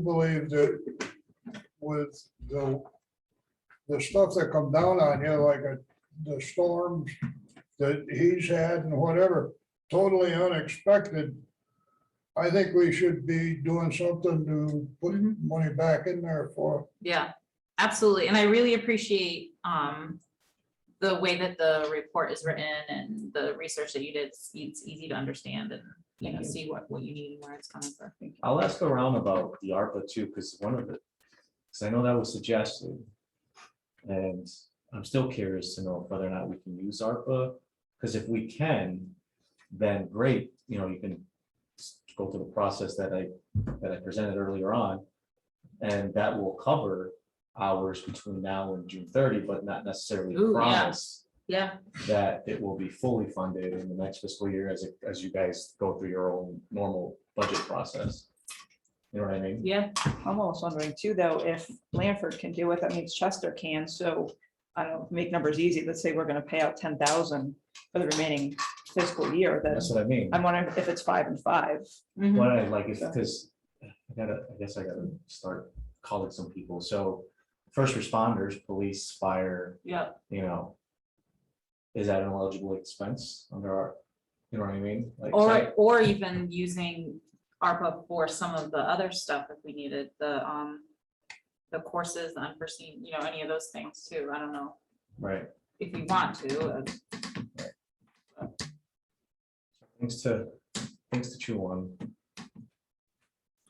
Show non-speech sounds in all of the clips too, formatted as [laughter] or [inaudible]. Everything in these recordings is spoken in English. believe that with the, the stuff that come down on you, like uh, the storms that he's had and whatever, totally unexpected. I think we should be doing something to put Mhm. money back in there for, Yeah, absolutely. And I really appreciate um the way that the report is written and the research that you did. It's it's easy to understand and, you know, see what what you need and where it's coming from. I'll ask around about the ARPA too, because one of the, because I know that was suggested. And I'm still curious to know whether or not we can use ARPA, because if we can, then great, you know, you can s- go through the process that I, that I presented earlier on. And that will cover hours between now and June thirty, but not necessarily Ooh, yeah. promise Yeah, that it will be fully funded in the next fiscal year as, it- as you guys go through your own normal budget process. You know what I mean? yeah, I'm almost wondering too, though, if Lanford can do it, that means Chester can, so I don't know, make numbers easy, let's say we're gonna pay out ten thousand for the remaining fiscal year, then That's what I mean. I'm wondering if it's five and five. Um, mhm, What I like is, because I gotta, I guess I gotta start calling some people. So first responders, police, fire, yeah, you know. Is that an eligible expense under our, you know what I mean? Like, or or even using ARPA for some of the other stuff if we needed, the um the courses, the unforeseen, you know, any of those things too. I don't know Right, if you want to. uh, things to, things to chew on.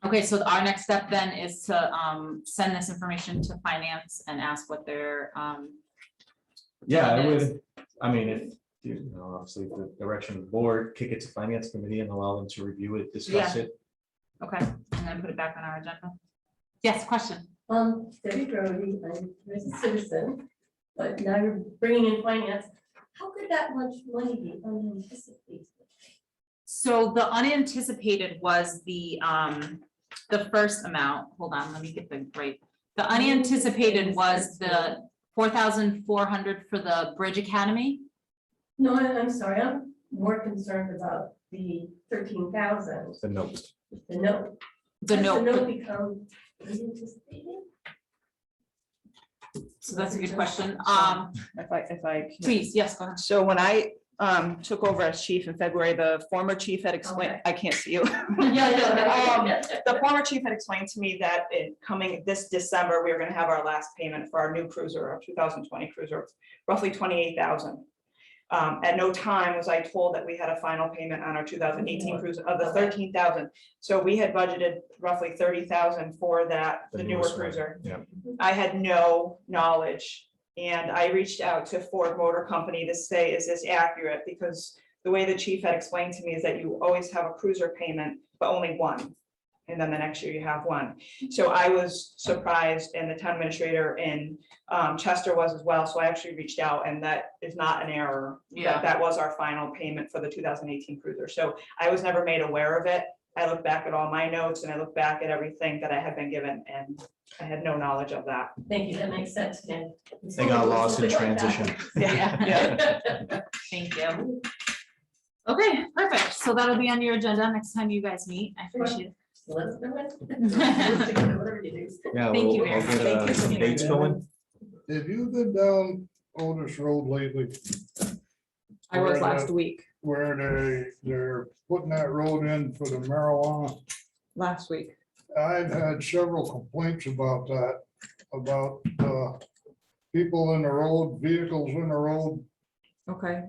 Okay, so our next step then is to um send this information to finance and ask what their um. Yeah, I Yes. would, I mean, if, you know, obviously the direction of the board, kick it to finance committee and allow them to review it, discuss it. Okay, and then put it back on our agenda. Yes, question. Um, Debbie Brody, I'm a citizen, but now you're bringing in finance. How could that much money be unanticipated? So the unanticipated was the um, the first amount, hold on, let me get the right. The unanticipated was the four thousand four hundred for the Bridge Academy. No, I- I'm sorry, I'm more concerned about the thirteen thousand, The notes, the note. The Does The note note, become unanticipated? so that's a good question. Um, If I, if I. can- please, yes, go ahead. So when I um took over as chief in February, the former chief had explained, Okay. I can't see you. Yeah, Um, [laughs] [laughs] The former chief had explained to me that in coming this December, we were gonna have our last payment for our new cruiser, our two thousand twenty cruiser, roughly twenty-eight thousand. Um, at no time was I told that we had a final payment on our two thousand eighteen cruiser of the Okay. thirteen thousand. So we had budgeted roughly thirty thousand for that, The the newer newest one. cruiser. yeah. I had no knowledge. And I reached out to Ford Motor Company to say, is this accurate? Because the way the chief had explained to me is that you always have a cruiser payment, but only one. And then the next year you have one. So I was surprised and the town administrator in um, Chester was as well. So I actually reached out and that is not an error. That- Yeah. That was our final payment for the two thousand eighteen cruiser. So I was never made aware of it. I look back at all my notes and I look back at everything that I had been given and I had no knowledge of that. Thank you, that makes sense, Jen. They got lost in [laughs] transition. Yeah. Yeah. Thank you. Okay, perfect. So that'll be on your agenda next time you guys meet. I appreciate it. Let's do [laughs] it. Whatever you do. Yeah. Thank we'll- you I'll very get, much. Thank uh, you. some Dates going? have you been down Otis Road lately? I was Where the- last week, Where they, they're putting that road in for the marijuana? last week. I've had several complaints about that, about uh, people in the road, vehicles in the road. Okay,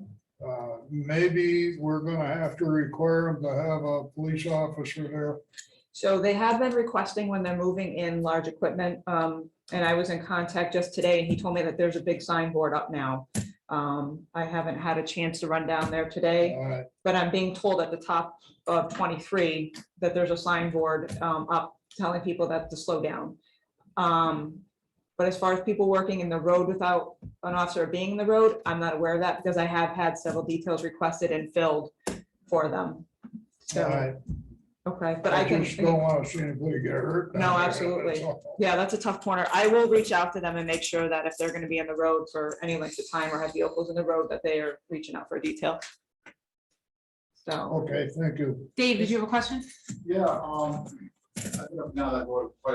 Uh, Maybe we're gonna have to require them to have a police officer there. so they have been requesting when they're moving in large equipment, um, and I was in contact just today, and he told me that there's a big signboard up now. Um, I haven't had a chance to run down there today, Uh, but I'm being told at the top of twenty-three that there's a signboard, um, up telling people that to slow down. Um, but as far as people working in the road without an officer being in the road, I'm not aware of that, because I have had several details requested and filled for them. So. I Okay, but I I can, just don't wanna see anybody get hurt. No, down there, absolutely. that's all. Yeah, that's a tough corner. I will reach out to them and make sure that if they're gonna be on the road for any length of time or have vehicles in the road, that they are reaching out for detail. So. Okay, thank you. Dave, did you have a question? Yeah, um, I don't know now that we're quite